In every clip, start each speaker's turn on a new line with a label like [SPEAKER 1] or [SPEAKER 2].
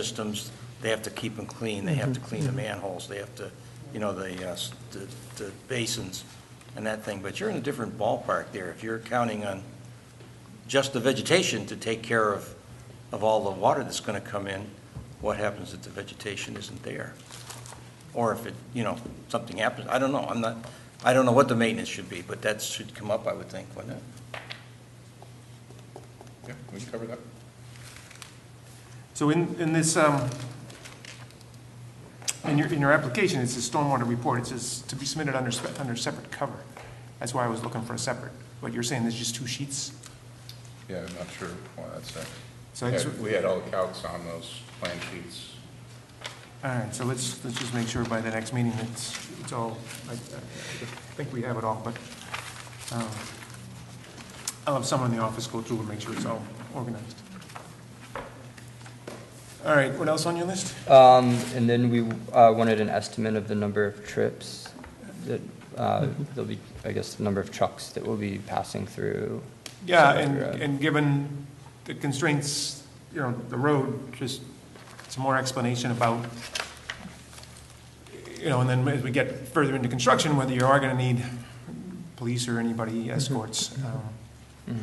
[SPEAKER 1] systems, they have to keep them clean, they have to clean the manholes, they have to, you know, the, uh, s- the- the basins and that thing, but you're in a different ballpark there. If you're counting on just the vegetation to take care of, of all the water that's going to come in, what happens if the vegetation isn't there? Or if it, you know, something happens, I don't know, I'm not, I don't know what the maintenance should be, but that should come up, I would think, wouldn't it?
[SPEAKER 2] Yeah, we can cover that.
[SPEAKER 3] So in, in this, um, in your, in your application, it's a stormwater report, it says to be submitted under, spe- under separate cover. That's why I was looking for a separate, but you're saying there's just two sheets?
[SPEAKER 2] Yeah, I'm not sure why that's that.
[SPEAKER 3] So it's-
[SPEAKER 2] Yeah, We had all the calcs on those plan sheets.
[SPEAKER 3] All right, so let's, let's just make sure by the next meeting it's, it's all, I, I think we have it all, but, um, I'll have someone in the office go through and make sure it's all organized. All right, what else on your list?
[SPEAKER 4] Um, and then we, uh, wanted an estimate of the number of trips that, uh, there'll be, I guess, the number of trucks that will be passing through.
[SPEAKER 3] Yeah,
[SPEAKER 4] Southern
[SPEAKER 3] and,
[SPEAKER 4] Road.
[SPEAKER 3] and given the constraints, you know, the road, just some more explanation about, you know, and then as we get further into construction, whether you are gonna need police or anybody escorts. um,
[SPEAKER 4] Mhm.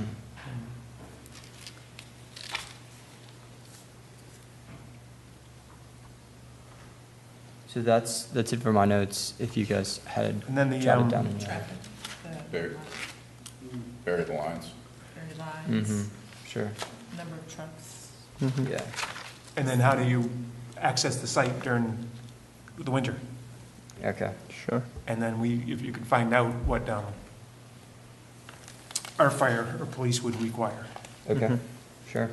[SPEAKER 4] So that's, that's it for my notes, if you guys had
[SPEAKER 3] And then the,
[SPEAKER 4] jotted down
[SPEAKER 3] um,
[SPEAKER 4] any.
[SPEAKER 2] Buried, buried the lines.
[SPEAKER 5] Very
[SPEAKER 4] Mm-hmm,
[SPEAKER 5] lines,
[SPEAKER 4] sure,
[SPEAKER 5] number of trucks.
[SPEAKER 4] yeah.
[SPEAKER 3] and then how do you access the site during the winter?
[SPEAKER 4] Okay. Sure.
[SPEAKER 3] And then we, if you could find out what, um, our fire or police would require.
[SPEAKER 4] Okay, sure.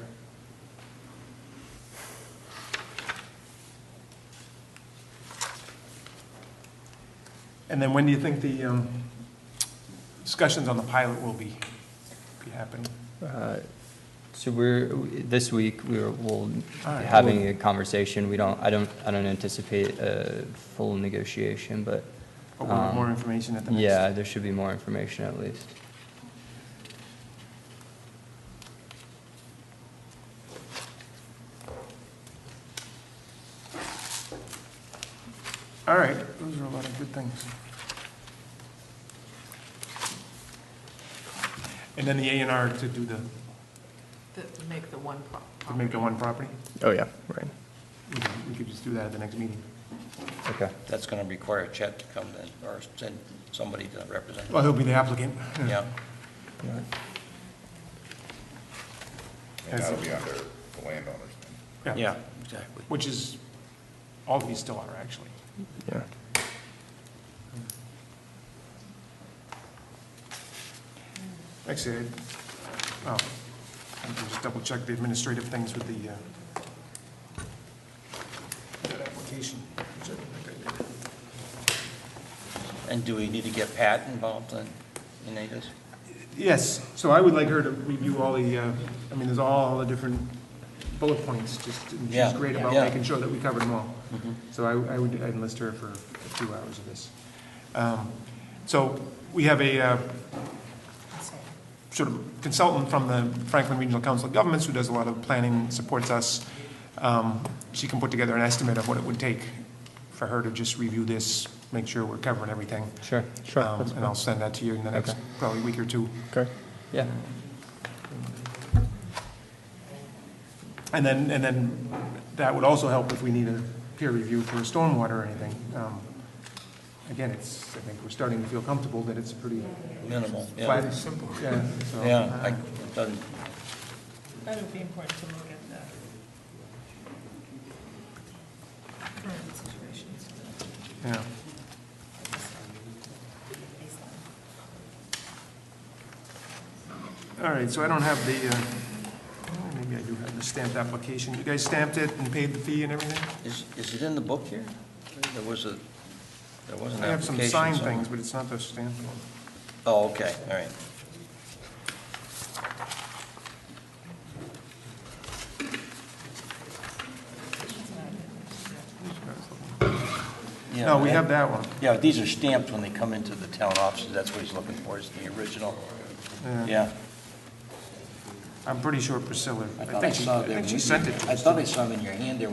[SPEAKER 3] And then when do you think the um, discussions on the pilot will be, be happening?
[SPEAKER 4] Uh, So we're, this week, we were, we'll be
[SPEAKER 3] All right,
[SPEAKER 4] having a conversation. We don't, I don't, I don't anticipate a full negotiation, but
[SPEAKER 3] Or will
[SPEAKER 4] Um,
[SPEAKER 3] more information at the next?
[SPEAKER 4] yeah, there should be more information at least.
[SPEAKER 3] All right, those are a lot of good things. And then the A and R to do the,
[SPEAKER 5] That make the one pro-
[SPEAKER 3] to make the one property?
[SPEAKER 4] Oh, yeah, right.
[SPEAKER 3] We could- We could just do that at the next meeting.
[SPEAKER 4] Okay,
[SPEAKER 1] That's going to require Chet to come then, or send somebody to represent,
[SPEAKER 3] Well, he'll be the applicant.
[SPEAKER 1] yeah.
[SPEAKER 2] And
[SPEAKER 3] As-
[SPEAKER 2] that'll be under the landowner's name.
[SPEAKER 1] Yeah, exactly.
[SPEAKER 3] Which is, all these still are, actually.
[SPEAKER 4] yeah.
[SPEAKER 3] Actually, I- oh, I can just double check the administrative things with the, uh, that application. which I think I did.
[SPEAKER 1] And do we need to get Pat involved in, in any of this?
[SPEAKER 3] Yes, so I would like her to review all the, uh, I mean, there's all the different bullet points, just, and she's
[SPEAKER 1] Yeah,
[SPEAKER 3] great about
[SPEAKER 1] yeah. Mm-hmm.
[SPEAKER 3] making sure that we covered them all. So I I would I'd enlist her for a few hours of this. Um, So we have a uh, sort of consultant from the Franklin Regional Council of Governments who does a lot of planning, supports us. Um, She can put together an estimate of what it would take for her to just review this, make sure we're covering everything.
[SPEAKER 4] Sure,
[SPEAKER 3] Um,
[SPEAKER 4] sure,
[SPEAKER 3] And I'll send that to you in the next,
[SPEAKER 4] Okay.
[SPEAKER 3] probably week or two.
[SPEAKER 4] yeah.
[SPEAKER 3] And then, and then that would also help if we need a peer review for stormwater or anything. Um, Again, it's, I think we're starting to feel comfortable that it's pretty
[SPEAKER 1] Minimal,
[SPEAKER 3] flat.
[SPEAKER 1] yeah.
[SPEAKER 3] simple. Yeah, so. uh,
[SPEAKER 1] Yeah, I, it doesn't,
[SPEAKER 5] That would be important to look at the current situations.
[SPEAKER 3] Yeah. All right, so I don't have the, uh, oh, maybe I do have the stamped application. You guys stamped it and paid the fee and everything?
[SPEAKER 1] is, is it in the book here? There was a, there was an application.
[SPEAKER 3] I have some signed
[SPEAKER 1] somewhere.
[SPEAKER 3] things, but it's not the stamped one.
[SPEAKER 1] Oh, okay, all right. Yeah,
[SPEAKER 3] No, we
[SPEAKER 1] I-
[SPEAKER 3] have that one.
[SPEAKER 1] Yeah, these are stamped when they come into the town offices, that's what he's looking for, is the original. Yeah.
[SPEAKER 3] I'm pretty sure Priscilla, I
[SPEAKER 1] thought
[SPEAKER 3] think she,
[SPEAKER 1] saw
[SPEAKER 3] I
[SPEAKER 1] them.
[SPEAKER 3] think she sent it to us.
[SPEAKER 1] I thought I saw them in your hand there